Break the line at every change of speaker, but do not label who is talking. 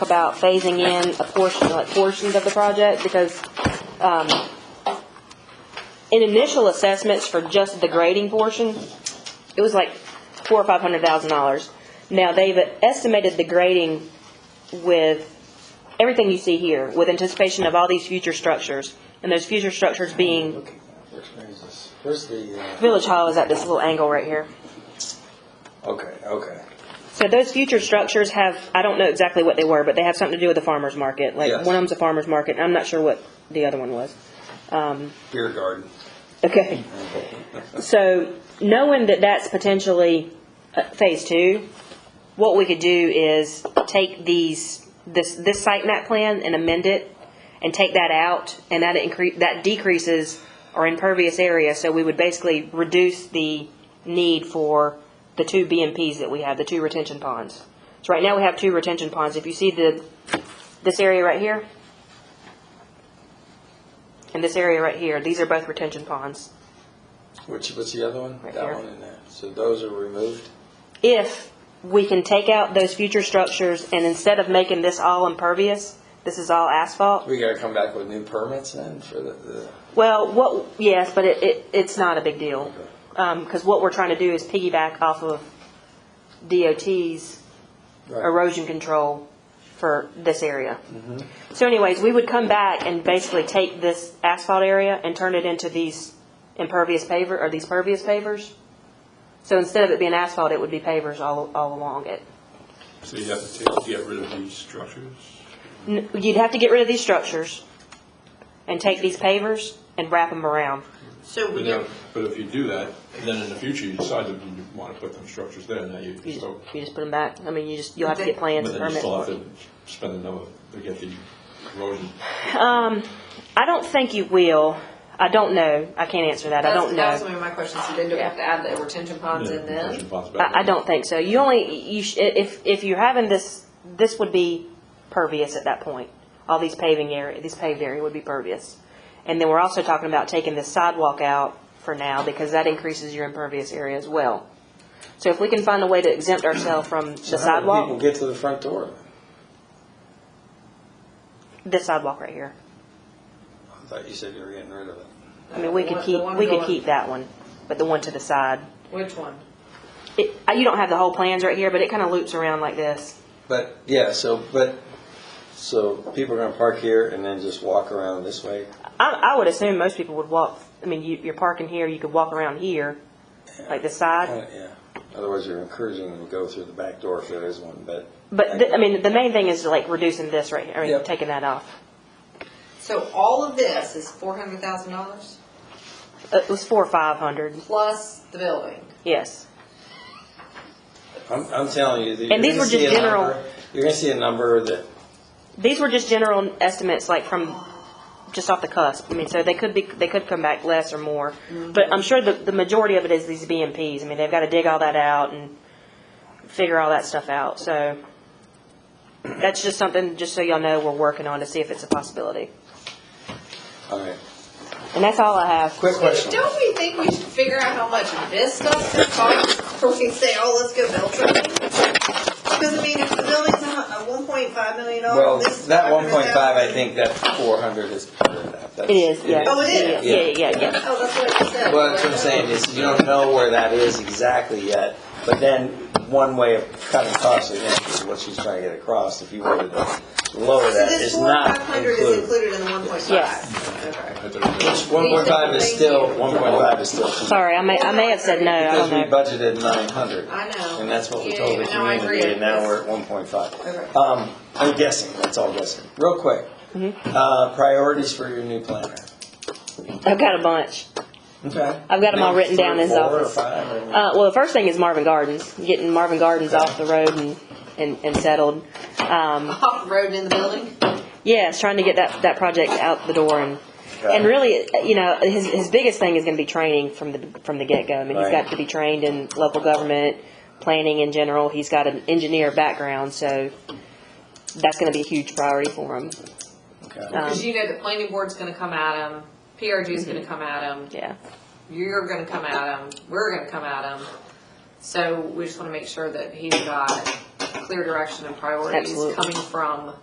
about phasing in a portion, like portions of the project, because, um, in initial assessments for just the grading portion, it was like four or five hundred thousand dollars. Now, they've estimated the grading with everything you see here, with anticipation of all these future structures, and those future structures being,
Okay, which brings us, where's the, uh,
Village Hall is at this little angle right here.
okay, okay.
So those future structures have, I don't know exactly what they were, but they have something to do with the farmer's market. Like,
Yes.
one of them's a farmer's market, and I'm not sure what the other one was.
Beer garden.
Okay. So, knowing that that's potentially uh, phase two, what we could do is take these, this, this site map plan and amend it and take that out, and that increase, that decreases our impervious area, so we would basically reduce the need for the two BMPs that we have, the two retention ponds. So right now we have two retention ponds. If you see the, this area right here, and this area right here, these are both retention ponds.
Which, what's the other one?
Right
That
here.
one in there. So those are removed?
if we can take out those future structures and instead of making this all impervious, this is all asphalt.
We gotta come back with new permits then for the, the,
Well, what, yes, but it, it, it's not a big deal. Um 'cause cause what we're trying to do is piggyback off of DOT's
right,
erosion control for this area. So anyways, we would come back and basically take this asphalt area and turn it into these impervious paver, or these pervious pavers. So instead of it being asphalt, it would be pavers all, all along it.
So you have to take, get rid of these structures?
N- You'd have to get rid of these structures and take these pavers and wrap them around.
So
But
we
now,
don't,
but if you do that, then in the future, you decide that you want to put them structures there, now you,
You just,
so,
you just put them back. I mean, you just, you'll have to get plans
but
and
then you
permits.
still have to spend another, to get the erosion.
I don't think you will. I don't know. I can't answer that. I
that's,
don't
that was
know.
one of my questions, so then do we have to add the retention ponds in
erosion
then?
ponds back
I, I
there.
don't think so. You only, you, sh- if, if you're having this, this would be pervious at that point. All these paving area, this paved area would be pervious. And then we're also talking about taking this sidewalk out for now because that increases your impervious area as well. So if we can find a way to exempt ourselves from the
So how do
sidewalk.
People get to the front door then?
this sidewalk right here.
I thought you said you were getting rid of it.
I mean, we
The
could
one-
keep,
the one
we could
going-
keep that one, but the one to the side.
Which one?
It, uh, you don't have the whole plans right here, but it kind of loops around like this.
But, yeah, so, but, so people are gonna park here and then just walk around this way?
I, I would assume most people would walk, I mean, you, you're parking here, you could walk around here, like this side.
Kinda, Yeah, otherwise you're encouraging them to go through the back door if there is one, but.
But, th- I mean, the main thing is like reducing this right here, I mean,
Yep.
taking that off.
So all of this is four hundred thousand dollars
Uh, It was four or five hundred,
plus the building.
yes.
I'm, I'm telling you, that you're
And these
gonna
were just
see a
general-
number, you're gonna see a number that,
These were just general estimates, like from, just off the cusp. I mean, so they could be, they could come back less or more. But I'm sure the, the majority of it is these BMPs. I mean, they've got to dig all that out and figure all that stuff out. So that's just something, just so y'all know, we're working on to see if it's a possibility.
all right,
And that's all I have.
quick question.
Don't we think we should figure out how much this stuff's gonna cost before we say, oh, let's go build something? Because I mean, if the building's a one point five million
Well,
dollars, this is
that one point five, I
$500,000.
think that four hundred is part of that. That's-
It is, yeah.
Oh, it is?
Yeah, yeah, yeah, yeah.
Oh, that's what you said.
Well, that's what I'm saying is you don't know where that is exactly yet, but then one way of cutting costs again is what she's trying to get across. If you wanted to lower
So
that,
this
it's
four five
not
hundred is
included.
included in the one point
Yes.
five? Okay.
Right there.
One point five is
Thank
still,
you.
one point five is still.
Sorry, I may, I may have said no, I
Because
don't
we
know.
budgeted nine hundred.
I know.
And that's what we
Yeah,
told the
yeah, no, I
community,
agree.
and now we're at one point five.
Okay.
Um, I'm guessing, that's all guessing. Real quick, uh, priorities for your new planner.
I've got a bunch.
Okay.
I've got 'em all written down in his
Three, four, or
office.
five, or-
Uh, well, the first thing is Marvin Gardens, getting Marvin Gardens off the road and, and, and settled. Um,
Off road and in the building?
Yeah, it's trying to get that, that project out the door and,
Okay.
and really, you know, his, his biggest thing is gonna be training from the, from the get-go. I mean, he's
Right.
got to be trained in local government, planning in general. He's got an engineer background, so that's gonna be a huge priority for him.
Okay.
Um,
Because you know the planning board's gonna come at him, PRG's gonna come at him,
yeah.
you're gonna come at him, we're gonna come at him. So we just wanna make sure that he's got clear direction and priorities
Absolutely.
coming from